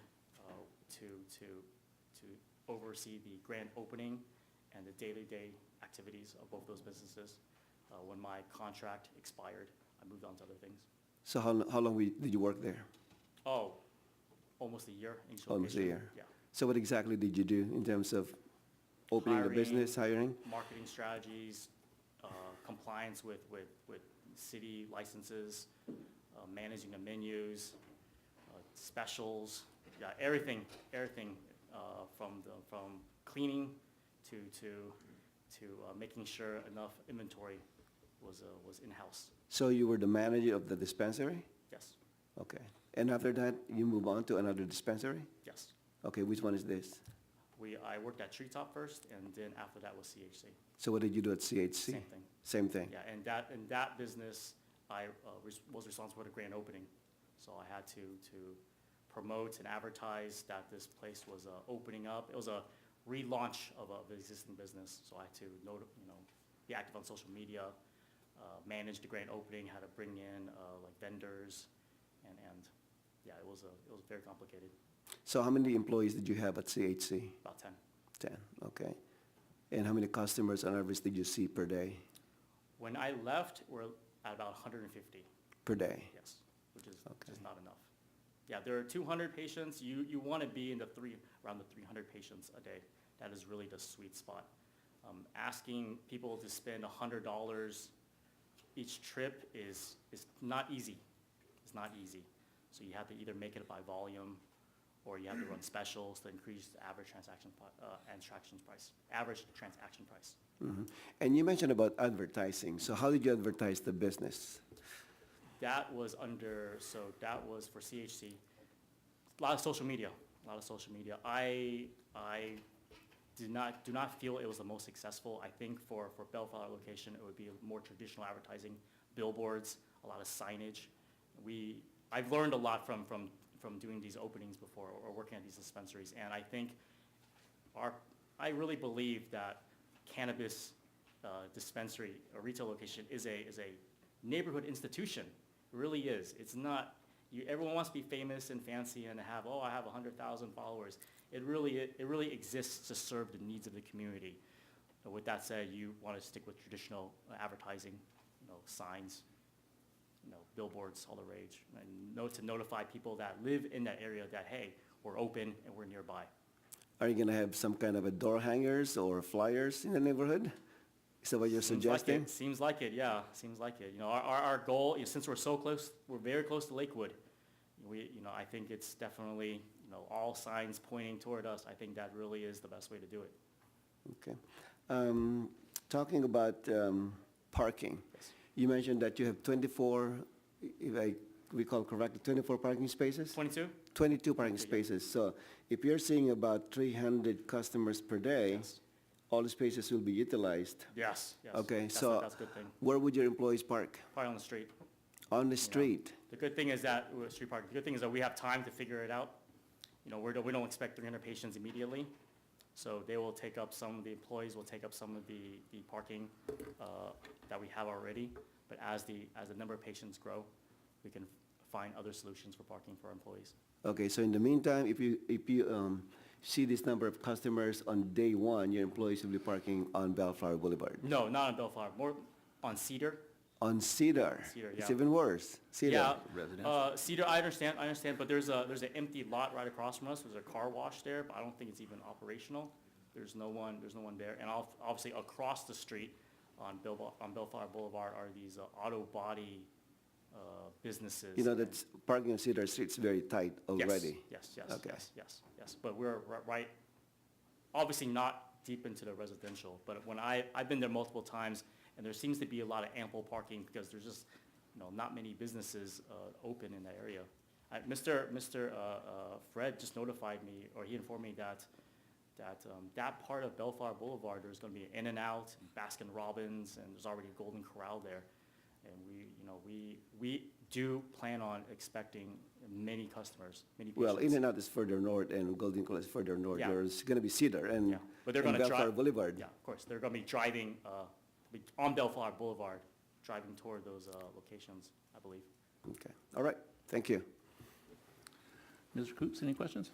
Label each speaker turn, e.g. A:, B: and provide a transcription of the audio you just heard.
A: uh, to, to, to oversee the grand opening and the day-to-day activities of both those businesses. Uh, When my contract expired, I moved on to other things.
B: So how, lo- how long we- did you work there?
A: Oh, almost a year in each location.
B: Almost a year.
A: Yeah.
B: So what exactly did you do in terms of opening the business, hiring?
A: Marketing strategies, uh, compliance with, with, with city licenses, uh, managing the menus, uh, specials, yeah, everything, everything uh, from the, from cleaning to, to, to uh, making sure enough inventory was, uh, was in-house,
B: So you were the manager of the dispensary?
A: yes,
B: Okay. And after that, you move on to another dispensary?
A: yes.
B: Okay, which one is this?
A: We, I worked at Treetop first, and then after that was CHC.
B: So what did you do at CHC?
A: Same thing.
B: Same thing?
A: Yeah, and that, and that business, I uh, was was responsible for the grand opening. So I had to, to promote and advertise that this place was uh, opening up. It was a relaunch of a- of an existing business, so I had to, note- you know, be active on social media, uh, manage the grand opening, had to bring in uh, like vendors, and, and, yeah, it was a, it was very complicated,
B: So how many employees did you have at CHC?
A: about 10.
B: Ten, okay. And how many customers on average did you see per day?
A: When I left, we're at about 150.
B: Per day?
A: Yes, which is
B: Okay.
A: just not enough. Yeah, there are 200 patients, you, you want to be in the three, around the 300 patients a day. That is really the sweet spot. Um, Asking people to spend $100 each trip is, is not easy. It's not easy. So you have to either make it by volume, or you have to run specials to increase the average transaction, pri- uh, and transactions price, average transaction price.
B: Mhm. And you mentioned about advertising. So how did you advertise the business?
A: That was under, so that was for CHC. A lot of social media, a lot of social media. I, I did not, do not feel it was the most successful. I think for, for Bellflower location, it would be more traditional advertising, billboards, a lot of signage. We, I've learned a lot from, from, from doing these openings before or working at these dispensaries. And I think our, I really believe that cannabis uh, dispensary or retail location is a, is a neighborhood institution. It really is. It's not, you, everyone wants to be famous and fancy and have, oh, I have 100,000 followers. It really, it really exists to serve the needs of the community. And With that said, you want to stick with traditional uh, advertising, you know, signs, you know, billboards all the rage, and no to notify people that live in that area that, hey, we're open and we're nearby.
B: Are you gonna have some kind of a door hangers or flyers in the neighborhood? Is that what you're
A: Seems like
B: suggesting?
A: it. Seems like it, yeah, seems like it. You know, our, our, our goal, is since we're so close, we're very close to Lakewood, we, you know, I think it's definitely, you know, all signs pointing toward us. I think that really is the best way to do it.
B: Okay. Um, Talking about um, parking,
A: Yes.
B: you mentioned that you have 24, if I recall correctly, 24 parking spaces?
A: Twenty-two?
B: 22 parking
A: 22, yeah.
B: spaces. So if you're seeing about 300 customers per day,
A: Yes.
B: all the spaces will be utilized.
A: Yes, yes.
B: Okay,
A: That's a-
B: so
A: That's a good thing.
B: Where would your employees park?
A: Probably on the street. you know.
B: On the street?
A: The good thing is that, uh, street parking, the good thing is that we have time to figure it out. You know, we're, we don't expect three hundred patients immediately. So they will take up some, the employees will take up some of the, the parking, uh, that we have already. But as the, as the number of patients grow, we can find other solutions for parking for our employees.
B: Okay, so in the meantime, if you, if you um, see this number of customers on day one, your employees will be parking on Bellflower Boulevard.
A: No, not on Bellflower, more on Cedar.
B: On Cedar.
A: Cedar,
B: It's
A: yeah.
B: even worse. Cedar.
A: Yeah, uh, Cedar, I understand, I understand, but there's a, there's an empty lot right across from us, there's a car wash there, but I don't think it's even operational. There's no one, there's no one there, and ob- obviously across the street on Bill, on Bellflower Boulevard are these uh, auto body, uh, businesses.
B: You know,
A: and-
B: that's, parking on Cedar Street's very tight
A: Yes,
B: already.
A: Yes, yes,
B: Okay.
A: yes, yes, yes, but we're ri- right, obviously not deep into the residential, but when I, I've been there multiple times, and there seems to be a lot of ample parking, because there's just, you know, not many businesses, uh, open in that area. I, Mr., Mr. uh, uh, Fred just notified me, or he informed me that, that, um, that part of Bellflower Boulevard, there's gonna be an In-N-Out, Baskin Robbins, and there's already a Golden Corral there. And we, you know, we, we do plan on expecting many customers, many patients.
B: Well, in and out is further north and Golden Corral is further north.
A: Yeah.
B: There's gonna be Cedar and
A: Yeah, but they're
B: and
A: gonna drive.
B: Bellflower Boulevard.
A: Yeah, of course, they're gonna be driving, uh, be- on Bellflower Boulevard, driving toward those, uh, locations, I believe.
B: Okay, all right, thank you.
C: Mr. Coops, any questions?